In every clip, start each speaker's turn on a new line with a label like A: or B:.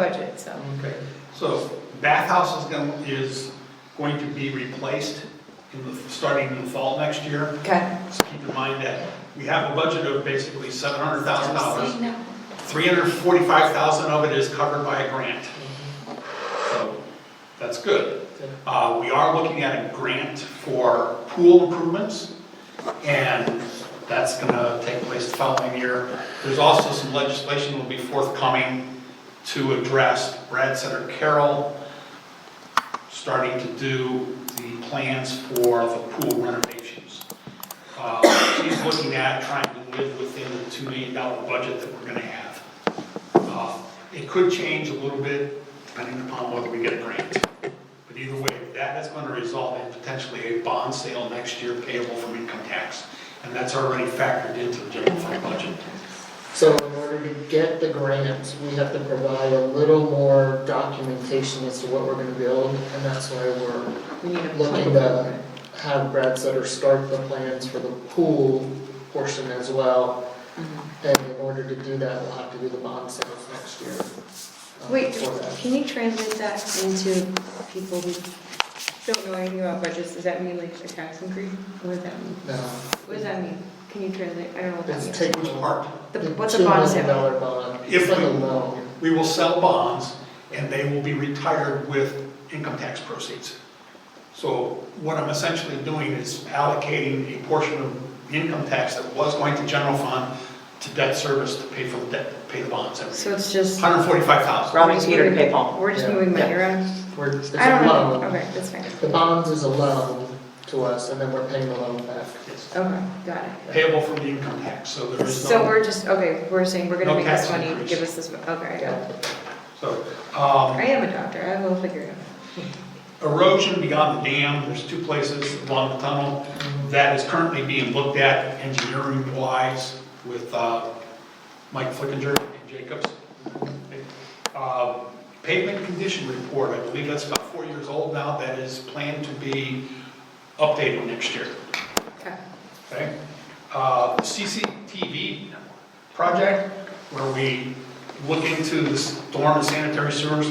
A: budget, so.
B: Okay, so bathhouse is going, is going to be replaced in the, starting in the fall next year.
A: Okay,
B: So keep in mind that we have a budget of basically seven hundred thousand dollars. Three hundred forty-five thousand of it is covered by a grant. So that's good. Uh, we are looking at a grant for pool improvements and that's gonna take place the following year. There's also some legislation that will be forthcoming to address Brad Center Carroll starting to do the plans for the pool renovations. Uh, He's looking at trying to live within the $2 million budget that we're gonna have. Uh, It could change a little bit depending upon whether we get a grant. But either way, that is gonna result in potentially a bond sale next year payable from income tax. And that's already factored into the general fund budget.
C: So in order to get the grant, we have to provide a little more documentation as to what we're gonna build, and that's why we're
A: we need a
C: looking
A: plan.
C: to have Brad Sutter start the plans for the pool portion as well.
A: Mm-hmm.
C: And in order to do that, we'll have to do the bond sales next year. um,
A: Wait,
C: for that.
A: can you translate that into people who don't know anything about budgets? Does that mean like a tax increase? What does that mean?
C: No,
A: What does that mean? Can you translate? I don't know what that
C: it's
A: means.
C: taking
B: Which
C: the
B: part?
A: The-
C: the
A: What's a
C: two
A: bond
C: million
A: sale?
C: dollar bond,
B: If
C: it's like a
B: we-
C: loan,
B: We will sell bonds, and they will be retired with income tax proceeds. So what I'm essentially doing is allocating a portion of income tax that was going to general fund to debt service to pay for the debt, pay the bonds every year.
A: So it's just.
B: Hundred forty-five thousand.
D: Robbing
A: we're just
D: Peter to
A: moving-
D: pay Paul.
A: We're just
C: Yeah.
A: moving money around?
C: we're, it's a
A: I don't know.
C: loan.
A: Okay, that's fine.
C: The bonds is a loan to us, and then we're paying the loan back.
A: Okay, got it.
B: Payable from the income tax, so there is no.
A: So we're just, okay, we're saying we're gonna
B: No
A: make this
B: tax
A: money,
B: increase.
A: give us this, mo- okay, I got it.
B: So,
A: I
B: um,
A: am a doctor, I will figure it out.
B: erosion beyond the dam, there's two places along the tunnel that is currently being looked at engineering-wise with, uh, Mike Flickinger and Jacobs. Uh, Pavement condition report, I believe that's about four years old now, that is planned to be updated next year,
A: Okay.
B: okay? Uh, CCTV project, where we look into the storm and sanitary sewers,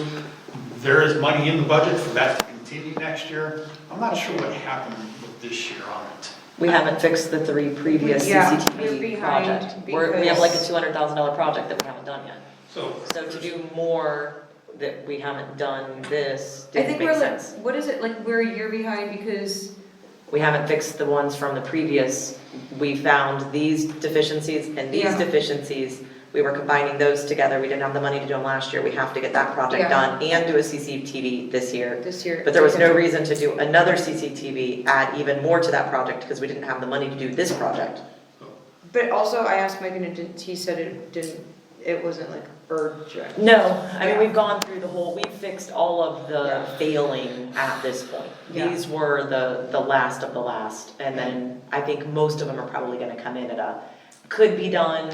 B: there is money in the budget for that to continue next year. I'm not sure what happened with this year on it.
D: We haven't fixed the three previous
A: Yeah, we're
D: CCTV
A: behind
D: project. We're, we have like a two hundred thousand dollar project that we haven't done yet.
B: So.
D: So to do more that we haven't done this
A: I
D: didn't
A: think
D: make
A: we're like,
D: sense.
A: what is it, like, we're a year behind because,
D: We haven't fixed the ones from the previous, we found these deficiencies and these
A: Yeah.
D: deficiencies. We were combining those together, we didn't have the money to do them last year, we have to get that
A: Yeah.
D: project done and do a CCTV this year.
A: this year.
D: But there was no reason to do another CCTV, add even more to that project, because we didn't have the money to do this project.
A: But also, I asked Mike and it didn't, he said it didn't, it wasn't like urgent.
D: No, I
A: Yeah.
D: mean, we've gone through the whole, we've fixed all of the
A: Yeah.
D: failing at this point.
A: Yeah.
D: These were the, the last of the last, and then I think most of them are probably gonna come in at a, could be done,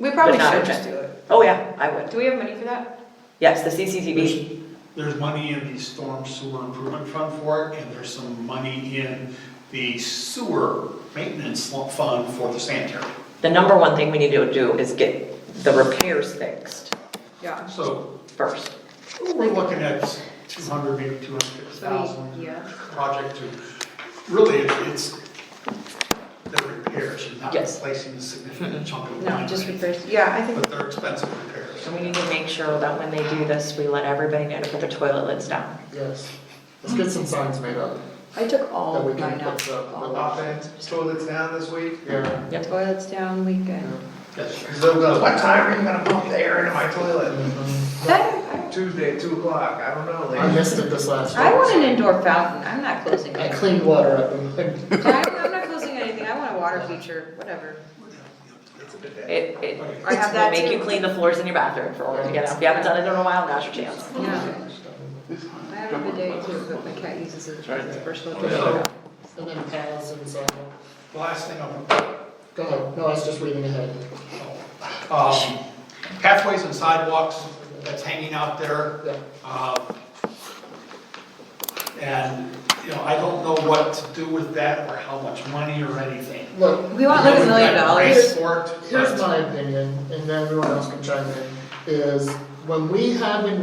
A: We probably
D: But not
A: should
D: urgent.
A: just do it.
D: oh yeah, I would.
A: Do we have money for that?
D: Yes, the CCTV,
B: There's- There's money in the storm sewer improvement fund for it, and there's some money in the sewer maintenance fund for the sanitary.
D: the number one thing we need to do is get the repairs fixed
A: Yeah.
B: So
D: first.
B: we're looking at two hundred, maybe two hundred fifty
A: So we-
B: thousand
A: Yeah.
B: project to, really, it- it's the repairs, you're not
D: Yes.
B: replacing a significant chunk of
A: Mm-hmm. No,
B: line.
A: just
B: repairs,
A: repairs. Yeah, I think,
B: But they're expensive repairs.
D: And we need to make sure that when they do this, we let everybody know to put their toilet lids down.
C: Yes, let's get some signs made up.
A: I took all
C: That we
A: of
C: can
A: mine out.
C: put up.
A: All.
E: Lot bands, toilets down this week?
C: Yeah,
D: Yep.
A: Toilets down weekend.
B: Yes.
E: So goes, what time are you gonna pump the air into my toilet?
C: I
A: That,
E: Tuesday, two o'clock, I don't know, lady.
C: missed it this last year.
A: I, I want an indoor fountain. I'm not closing
C: I
A: it.
C: cleaned water up and
A: I'm, I'm not closing anything. I want a water feature, whatever.
E: It's a bidet.
D: It, it
B: Okay.
A: I have that
D: will make you
A: too.
D: clean the floors in your bathroom for order to get out. If you haven't done it in a while, now's your chance.
A: Yeah. I have a bidet too, but my cat uses it as a personal
B: So-
A: toilet.
C: and then paths and so on.
B: The Last thing um, I'm gonna
C: Go ahead, no, I was just reading ahead.
B: Um, Pathways and sidewalks, that's hanging out there.
C: Yeah.
B: Um, And, you know, I don't know what to do with that or how much money or anything.
C: Look,
A: We want like a million dollars.
B: Race for it,
C: here's
B: but-
C: my opinion, and then everyone else can chime in, is when we have an